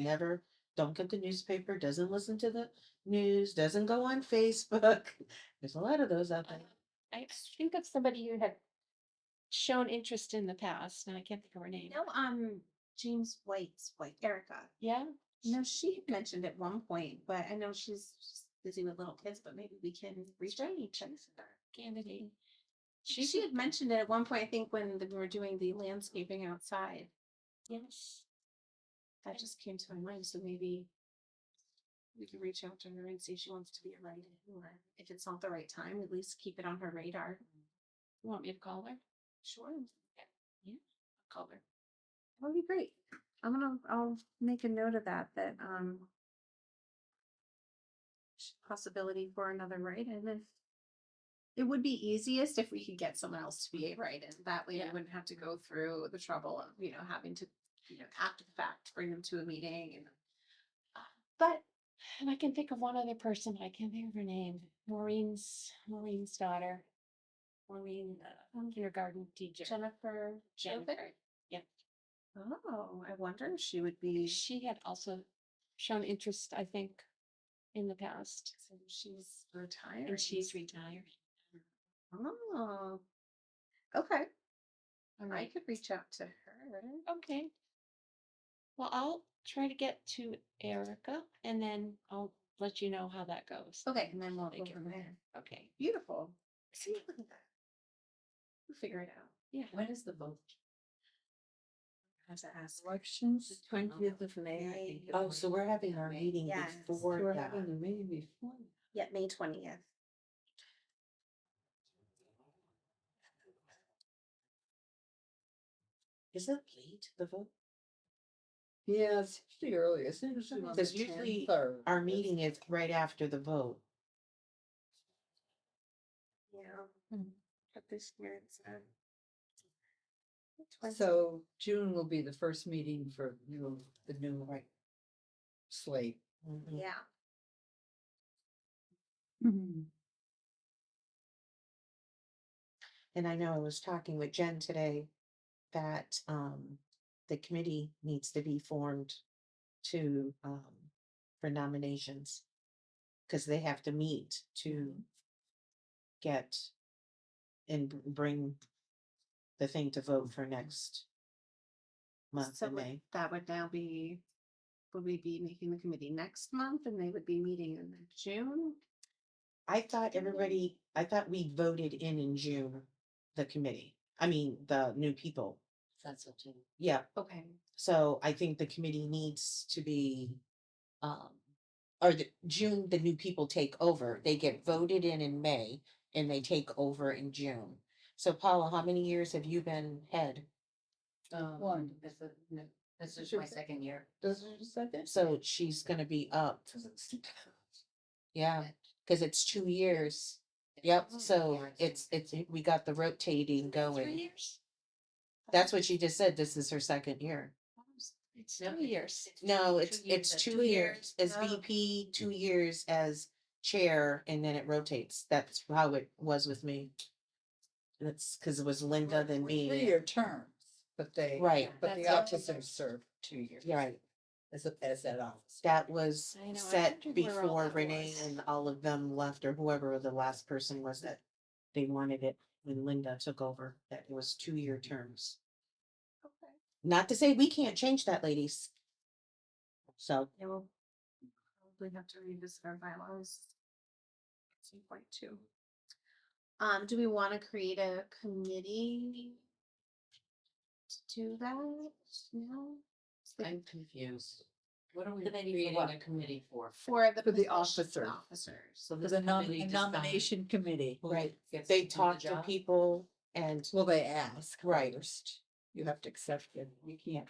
never, don't get the newspaper, doesn't listen to the news, doesn't go on Facebook. There's a lot of those out there. I think of somebody who had shown interest in the past, and I can't think of her name. know, um, James White's wife, Erica. Yeah, No, she had mentioned at one point, but I know she's she's busy with little kids, but maybe we can reach out and check with her. candidate. She, she had mentioned it at one point, I think, when the- we were doing the landscaping outside. Yes. That just came to my mind, so maybe we could reach out to her and see if she wants to be a writer, or if it's not the right time, at least keep it on her radar. You want me to call her? Sure, Call her. that would be great. I'm gonna, I'll make a note of that, that, um, sh- possibility for another write-in if it would be easiest if we could get someone else to be a write-in. That way we Yeah. wouldn't have to go through the trouble of, you know, having to, you know, after the fact, bring them to a meeting and uh, But, and I can think of one other person, I can't think of her name, Maureen's, Maureen's daughter. Maureen, uh, Um, kindergarten teacher. Jennifer Jennifer. yeah. Oh, I wonder if she would be, so She had also shown interest, I think, in the past. she's retired. And she's retired. Oh. Okay, All I right. could reach out to her. Okay. Well, I'll try to get to Erica and then I'll let you know how that goes. Okay, and then we'll Thank go you. from there. Okay. Beautiful. See, look at that. We'll figure it out. Yeah. When is the vote? I have to ask. Elections. of May. Oh, so we're having our meeting Yes. before that. the meeting before. Yeah, May twentieth. Is it late, the vote? Yeah, it's usually early, it's usually. Because usually Our meeting is right after the vote. Yeah. Mm. But this year it's um. the 20th. So June will be the first meeting for new, the new Right. slate. Mhm. Yeah, And I know I was talking with Jen today that um the committee needs to be formed to um for nominations. Cause they have to meet to Mm-hmm. get and br- bring the thing to vote Mm-hmm. for next month so in would- May. that would now be, would we be making the committee next month and they would be meeting in June? I thought Didn't we? everybody, I thought we voted in in June, the committee, I mean, the new people. That's what you. Yeah, Okay, So I think the committee needs to be, um, or the, June, the new people take over. They get voted in in May and they take over in June. So Paula, how many years have you been head? Um, One. This is, this is my second year. This is your second? So she's gonna be up, yeah, cause it's two years. Yep, so it's, it's, we got the rotating Three going. years? That's what she just said. This is her second year. It's No, three years. No, it's, years it's at two two years as years. Oh. VP, two years as chair, and then it rotates. That's how it was with me. That's because it was Linda than me. Three-year terms, but they. Right, But the That's- officers serve two years. right. As, a- as that officer. That was I know, I set wondered where all before that Renee was. and all of them left or whoever the last person was that they wanted it when Linda took over, that it was two-year terms. okay. Not to say we can't change that, ladies. So, Yeah, we'll probably have to revisit our bylaws. At some point too. Um, do we wanna create a committee? To do that, no? It's like I'm confused. What are we Committee for creating what? a committee for? For the. For the position- officer. Officers. So this The nom- committee the decides nomination committee. who Right. gets they to do the talk to job? people and Well, they ask. Right. first. You have to accept it. You can't.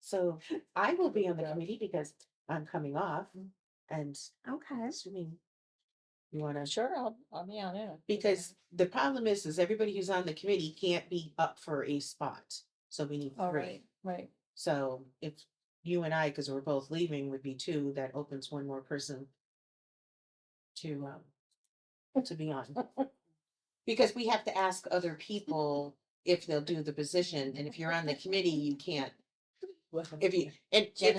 So I will be on the committee because I'm coming off Mm. and Okay. assuming you wanna, Sure, I'll, I'll be on it. because the problem is, is everybody who's on the committee can't be up for a spot. So we need All three. right, right. So if you and I, because we're both leaving, would be two, that opens one more person to, um, to be on. Because we have to ask other people if they'll do the position, and if you're on the committee, you can't, if you, and if Jennifer